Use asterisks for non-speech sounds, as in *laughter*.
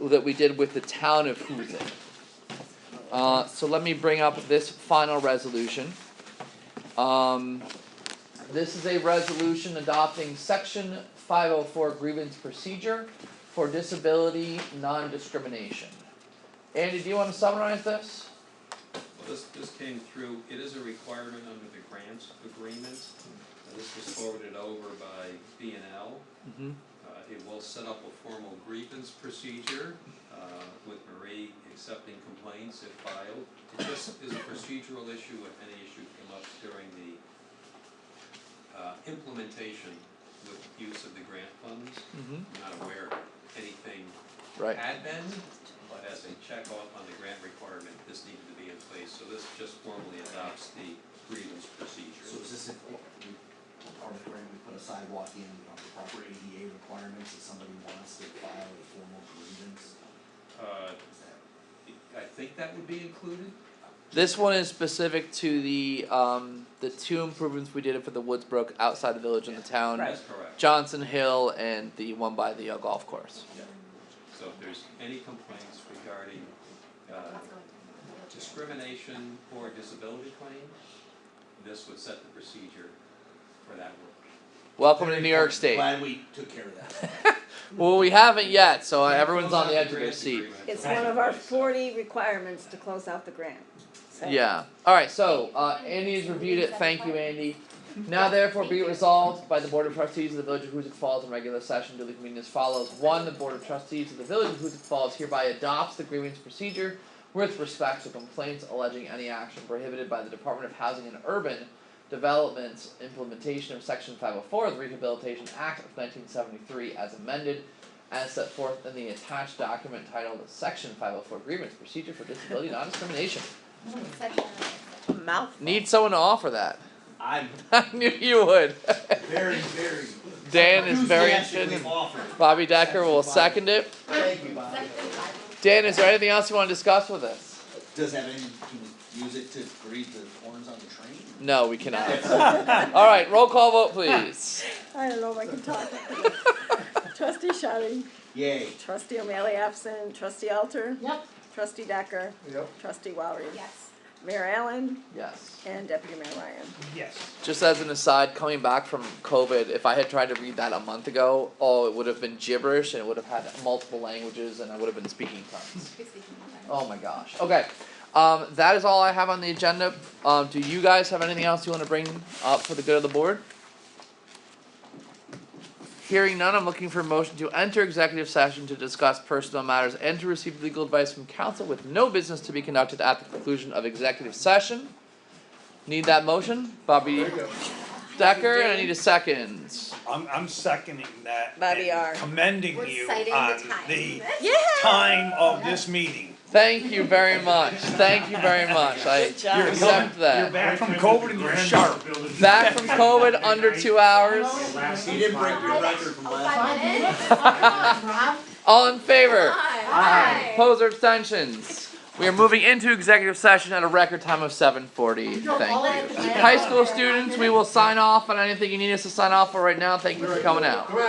that we did with the town of Houzen. Uh, so let me bring up this final resolution. Um, this is a resolution adopting section five oh four grievance procedure for disability non-discrimination. Andy, do you wanna summarize this? Well, this, this came through, it is a requirement under the grant agreement. Uh, This was forwarded over by B and L. Mm-hmm. Uh, It will set up a formal grievance procedure uh, with Marie accepting complaints if filed. It just is a procedural issue if any issue came up during the uh, implementation with use of the grant funds. Mm-hmm. I'm not aware anything Right, had been, but as a check off on the grant requirement, this needed to be in place. So this just formally adopts the grievance So procedure. is this if we, part of the grant, we put a sidewalk in, we have the proper ADA requirements, if somebody wants to file a formal grievance? Uh, is that- I think that would be included. this one is specific to the, um, the two improvements we did for the Woods Brook outside the village and the town. That's correct. Johnson Hill and the one by the uh, golf course. So if there's any complaints regarding uh, discrimination or disability claim, this would set the procedure for that work. Welcome to New York State. Glad we took care of that. Well, we haven't yet, so Can't everyone's close on the edge out of their grant seat. agreement It's until one it's of in our place. forty requirements to close out the grant. So- Yeah. All right. So uh, Andy has reviewed it. Thank you, Andy. Now, therefore, be it resolved by the Board of Trustees of the Village of Hoosick Falls in regular session duly convened as follows. One, the Board of Trustees of the Village of Hoosick Falls hereby adopts the grievance procedure with respect to complaints alleging any action prohibited by the Department of Housing and Urban Development's implementation of Section 504 of the Rehabilitation Act of 1973 as amended, as set forth in the attached document titled Section 504 Grievance Procedure for Disability Non-Discrimination. Mouthful. Need someone to offer that. *laughs* I'm I knew you would. *laughs* very, very. Dan is very interested. enthusiastically offered. Bobby Decker will second it. Thank you, Bob. Dan, is there anything else you want to discuss with us? Does that mean, can we use it to grieve the horns on the train? No, we cannot. All right, roll call vote, please. I don't know if I can talk. Trustee Shetty, Yay. trustee O'Malley absent, trustee Alter, Yep. trustee Decker, Yep. trustee Walry. Yes. Mayor Allen Yes. and deputy mayor Ryan. Yes. Just as an aside, coming back from COVID, if I had tried to read that a month ago, oh, it would have been gibberish and it would have had multiple languages and I would have been speaking tongues. Oh my gosh. Okay. Um, that is all I have on the agenda. Um, do you guys have anything else you want to bring up for the good of the board? Hearing none, I'm looking for a motion to enter executive session to discuss personal matters and to receive legal advice from counsel with no business to be conducted at the conclusion of executive session. Need that motion? Bobby Decker, and I need a second. I'm, I'm seconding that. Bobby and R. Commending We're you citing the on time. the Yeah. time of this meeting. Thank you very much. Thank you very much. I Good job. You're accept You're that. back Uh, from COVID and you're sharp. Back from COVID under two hours. He didn't break your record from last. time. Five *laughs* minutes? Rob? All in favor? Hi. Opposed or abstentions? We are moving into executive session at a record time of seven forty, thank you. High school students, we will sign off on anything you need us to sign off for right now, thank you for coming out.